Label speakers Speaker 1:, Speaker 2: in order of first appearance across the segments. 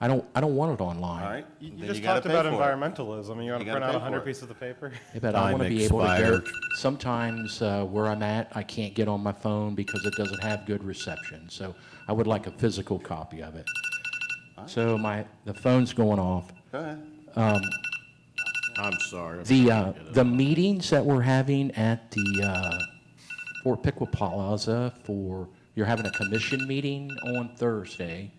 Speaker 1: I don't, I don't want it online.
Speaker 2: all right?
Speaker 3: You
Speaker 2: Then
Speaker 3: you just
Speaker 2: gotta
Speaker 3: talked
Speaker 2: pay
Speaker 3: about
Speaker 2: for it.
Speaker 3: environmentalism, and you want to
Speaker 2: gotta
Speaker 3: print out
Speaker 2: pay
Speaker 3: 100
Speaker 2: for it.
Speaker 3: pieces of paper?
Speaker 1: Yeah, but I
Speaker 4: Time
Speaker 1: want to be able to
Speaker 4: expired.
Speaker 1: get, sometimes uh, where I'm at, I can't get on my phone because it doesn't have good reception. So I would like a physical copy of it. So my, the phone's going off.
Speaker 2: Go ahead.
Speaker 4: I'm sorry.
Speaker 1: Um, The, uh, the meetings that we're having at the, uh, Fort Piqua Plaza for, you're having a commission meeting on Thursday,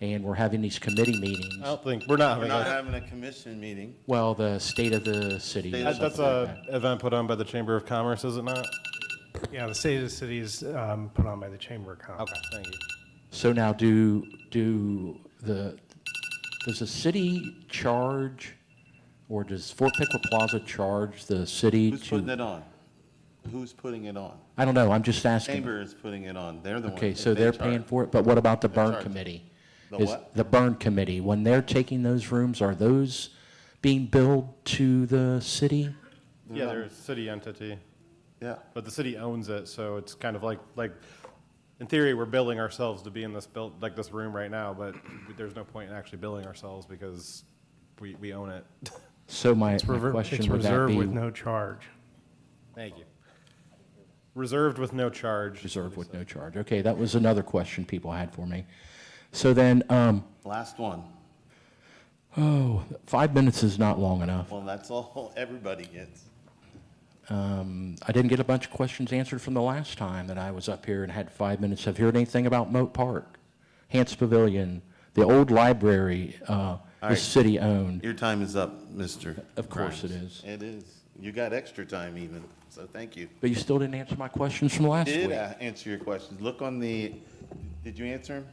Speaker 1: and we're having these committee
Speaker 3: I
Speaker 1: meetings.
Speaker 3: don't think, we're not
Speaker 2: We're
Speaker 3: having
Speaker 2: not
Speaker 3: that.
Speaker 2: having a commission meeting.
Speaker 1: Well, the state of the city.
Speaker 2: State
Speaker 1: or
Speaker 2: of
Speaker 3: That's
Speaker 1: something like
Speaker 3: a event put on by the Chamber of Commerce, is it not?
Speaker 5: Yeah, the State of the City is um, put on by the Chamber of Commerce.
Speaker 3: Okay, thank you.
Speaker 1: So now do, do the, does the city charge, or does Fort Piqua Plaza charge the city
Speaker 2: Who's putting
Speaker 1: to?
Speaker 2: it on? Who's putting it on?
Speaker 1: I don't know, I'm just asking.
Speaker 2: Chamber is putting it on. They're the one.
Speaker 1: Okay,
Speaker 2: that
Speaker 1: so
Speaker 2: they
Speaker 1: they're
Speaker 2: charge.
Speaker 1: paying for it, but what about the burn
Speaker 2: charge.
Speaker 1: committee?
Speaker 2: The
Speaker 1: Is-
Speaker 2: what?
Speaker 1: The burn committee, when they're taking those rooms, are those being billed to the city?
Speaker 3: Yeah, they're a city entity,
Speaker 2: Yeah,
Speaker 3: but the city owns it, so it's kind of like, like, in theory, we're billing ourselves to be in this built, like this room right now, but there's no point in actually billing ourselves because we, we own it.
Speaker 1: So my
Speaker 5: It's
Speaker 1: my
Speaker 5: rever-
Speaker 1: question
Speaker 5: It's
Speaker 1: would that
Speaker 5: reserved
Speaker 1: be?
Speaker 5: with no charge.
Speaker 3: Thank you. Reserved with no charge.
Speaker 1: Reserved with no charge, okay, that was another question people had for me. So then, um,
Speaker 2: last one.
Speaker 1: oh, five minutes is not long enough.
Speaker 2: Well, that's all everybody gets.
Speaker 1: Um, I didn't get a bunch of questions answered from the last time that I was up here and had five minutes. Have you heard anything about Moat Park, Hance Pavilion, the old library, uh,
Speaker 2: right.
Speaker 1: is city-owned?
Speaker 2: Your time is up, Mr.
Speaker 1: Of course it is.
Speaker 2: It is. You got extra time even, so thank you.
Speaker 1: But you still didn't answer my questions from last
Speaker 2: Did
Speaker 1: week.
Speaker 2: I answer your questions? Look on the, did you answer them?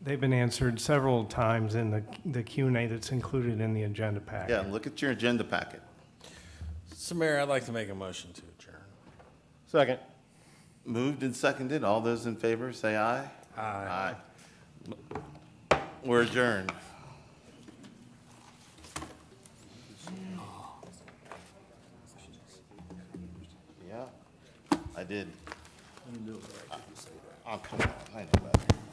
Speaker 5: They've been answered several times in the the Q and A that's included in the agenda packet.
Speaker 2: Yeah, look at your agenda packet.
Speaker 4: So Mayor, I'd like to make a motion to adjourn.
Speaker 3: Second.
Speaker 2: Moved and seconded. All those in favor, say aye. Aye. We're adjourned. Yeah, I did. Oh, come on, I know that.